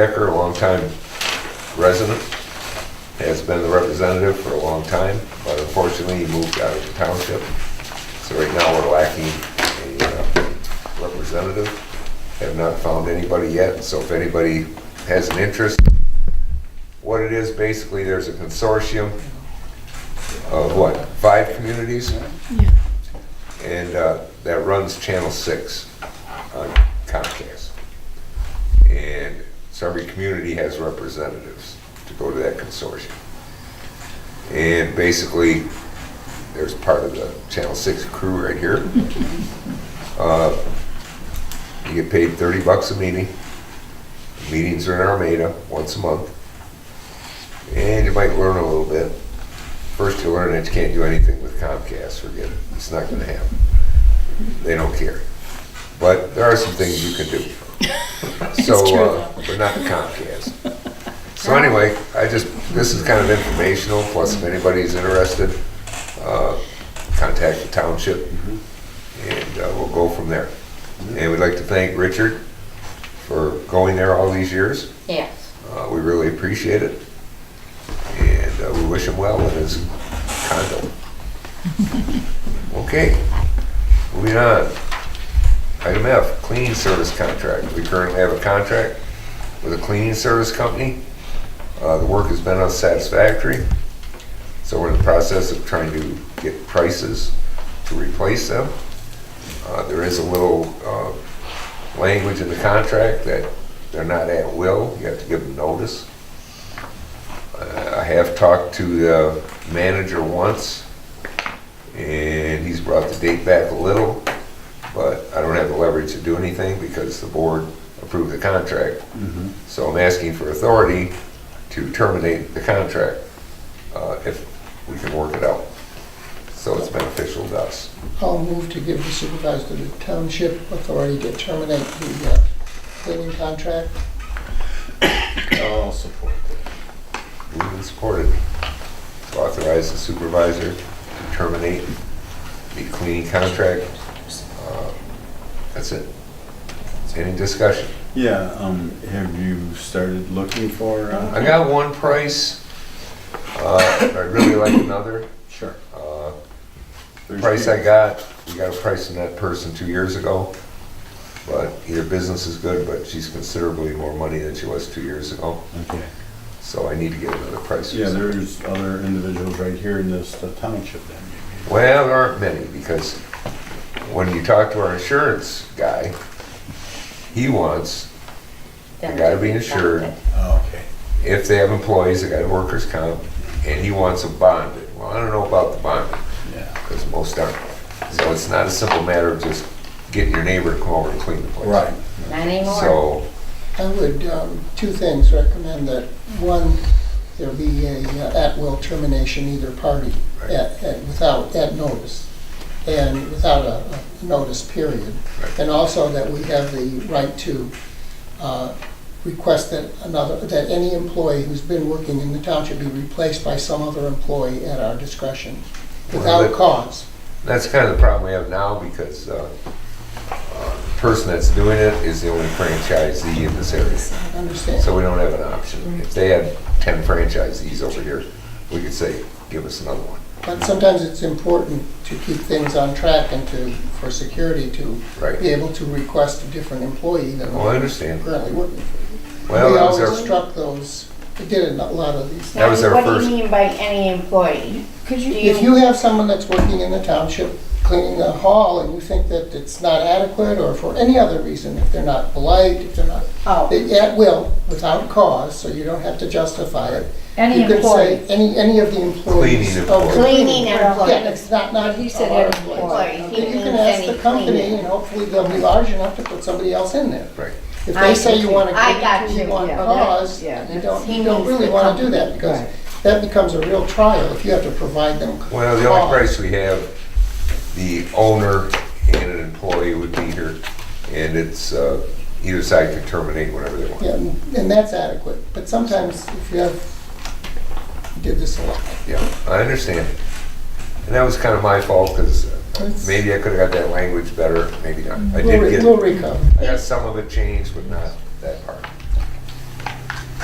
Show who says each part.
Speaker 1: Decker, a longtime resident, has been the representative for a long time, but unfortunately, he moved out of the township. So right now, we're lacking a uh, representative. Have not found anybody yet, so if anybody has an interest, what it is, basically, there's a consortium of what, five communities?
Speaker 2: Yeah.
Speaker 1: And uh, that runs Channel 6 on Comcast. And so every community has representatives to go to that consortium. And basically, there's part of the Channel 6 crew right here. Uh, You get paid 30 bucks a meeting. Meetings are in Armada once a month. And you might learn a little bit. First you learn that you can't do anything with Comcast, forget it, it's not gonna happen. They don't care. But there are some things you can do. So,
Speaker 2: true,
Speaker 1: uh, But not the Comcast. So anyway, I just, this is kind of informational, plus if anybody's interested, uh, contact the township, and uh, we'll go from there. And we'd like to thank Richard for going there all these years.
Speaker 3: Yes.
Speaker 1: Uh, We really appreciate it, and uh, we wish him well in his condo. Okay, moving on. Item F, cleaning service contract. We currently have a contract with a cleaning service company. Uh, The work has been unsatisfactory, so we're in the process of trying to get prices to replace them. Uh, There is a little uh, language in the contract that they're not at will, you have to give them notice. Uh, I have talked to the manager once, and he's brought the date back a little, but I don't have the leverage to do anything because the board approved the contract. So I'm asking for authority to terminate the contract uh, if we can work it out. So it's beneficial to us.
Speaker 4: I'll move to give the supervisor of the township authority to terminate the uh, cleaning contract.
Speaker 5: I'll support that.
Speaker 1: Moved and supported. To Authorize the supervisor to terminate the cleaning contract. Uh, That's it. Any discussion?
Speaker 5: Yeah, um, have you started looking for,
Speaker 1: I
Speaker 5: uh?
Speaker 1: got one price. Uh, I'd really like another.
Speaker 5: Sure.
Speaker 1: Uh, The
Speaker 5: There's
Speaker 1: Price
Speaker 5: two.
Speaker 1: I got, we got a price on that person two years ago. But either business is good, but she's considerably more money than she was two years ago.
Speaker 5: Okay.
Speaker 1: So I need to get another price.
Speaker 5: Yeah, there's other individuals right here in this the township then.
Speaker 1: Well, there aren't many, because when you talk to our insurance guy, he wants, They gotta be insured.
Speaker 5: Oh, okay.
Speaker 1: if they have employees, they got workers comp, and he wants them bonded. Well, I don't know about the bonding,
Speaker 5: Yeah.
Speaker 1: because most aren't. So it's not a simple matter of just getting your neighbor to come over and clean the place.
Speaker 5: Right.
Speaker 3: Not anymore.
Speaker 1: So,
Speaker 4: I would, um, two things, recommend that, one, there be a uh, at-will termination either party,
Speaker 1: Right.
Speaker 4: at, at, without, at notice, and without a a notice period.
Speaker 1: Right.
Speaker 4: And also that we have the right to uh, request that another, that any employee who's been working in the township be replaced by some other employee at our discretion,
Speaker 1: Well,
Speaker 4: without
Speaker 1: that-
Speaker 4: cause.
Speaker 1: that's kind of the problem we have now, because, uh, uh, the person that's doing it is the only franchisee in this area.
Speaker 4: I Understand?
Speaker 1: So we don't have an option. If they had 10 franchisees over here, we could say, give us another one.
Speaker 4: But sometimes it's important to keep things on track and to, for security, to be
Speaker 1: Right.
Speaker 4: able to request a different employee than
Speaker 1: Well, Oh, I
Speaker 4: we're
Speaker 1: understand.
Speaker 4: currently working. for.
Speaker 1: Well,
Speaker 4: We
Speaker 1: that was
Speaker 4: always
Speaker 1: our,
Speaker 4: struck those, we did in a lot of these.
Speaker 1: that was our
Speaker 3: Now, What
Speaker 1: first-
Speaker 3: do you mean by any employee?
Speaker 2: Could
Speaker 3: Do
Speaker 2: you,
Speaker 4: If you have someone that's working in the township cleaning the hall and you think that it's not adequate or for any other reason, if they're not polite, if they're not,
Speaker 3: Oh,
Speaker 4: they- at will, without cause, so you don't have to justify it.
Speaker 3: any
Speaker 4: You could
Speaker 3: employee.
Speaker 4: say any, any of the employees.
Speaker 1: Cleaning
Speaker 4: Oh,
Speaker 1: employees.
Speaker 3: Cleaning
Speaker 4: Yeah,
Speaker 3: employee.
Speaker 4: it's not, not.
Speaker 2: He said
Speaker 4: our
Speaker 2: every
Speaker 4: employees.
Speaker 3: employee. He
Speaker 4: You can
Speaker 3: means
Speaker 4: ask the
Speaker 3: any
Speaker 4: company,
Speaker 3: cleaner.
Speaker 4: and hopefully they'll be large enough to put somebody else in there.
Speaker 1: right.
Speaker 4: If
Speaker 3: I
Speaker 4: they say you
Speaker 3: see.
Speaker 4: want to
Speaker 3: I
Speaker 4: give
Speaker 3: got
Speaker 4: it to
Speaker 3: you.
Speaker 4: you on
Speaker 3: Yeah.
Speaker 4: cause,
Speaker 2: Yeah,
Speaker 4: you
Speaker 2: that's-
Speaker 4: don't,
Speaker 3: he
Speaker 4: you don't
Speaker 3: means
Speaker 4: really
Speaker 3: the
Speaker 4: want to do that,
Speaker 3: company.
Speaker 4: because
Speaker 2: Right.
Speaker 4: that becomes a real trial if you have to provide them cause.
Speaker 1: Well, the only price we have, the owner and an employee would be here, and it's, uh, either side can terminate whenever they want.
Speaker 4: Yeah, and and that's adequate, but sometimes if you have, we did this a lot.
Speaker 1: Yeah, I understand. And that was kind of my fault, because
Speaker 4: It's-
Speaker 1: maybe I could have got that language better, maybe not. I
Speaker 4: We'll
Speaker 1: did
Speaker 4: re- We'll
Speaker 1: get,
Speaker 4: recover.
Speaker 1: I got some of it changed, but not that part.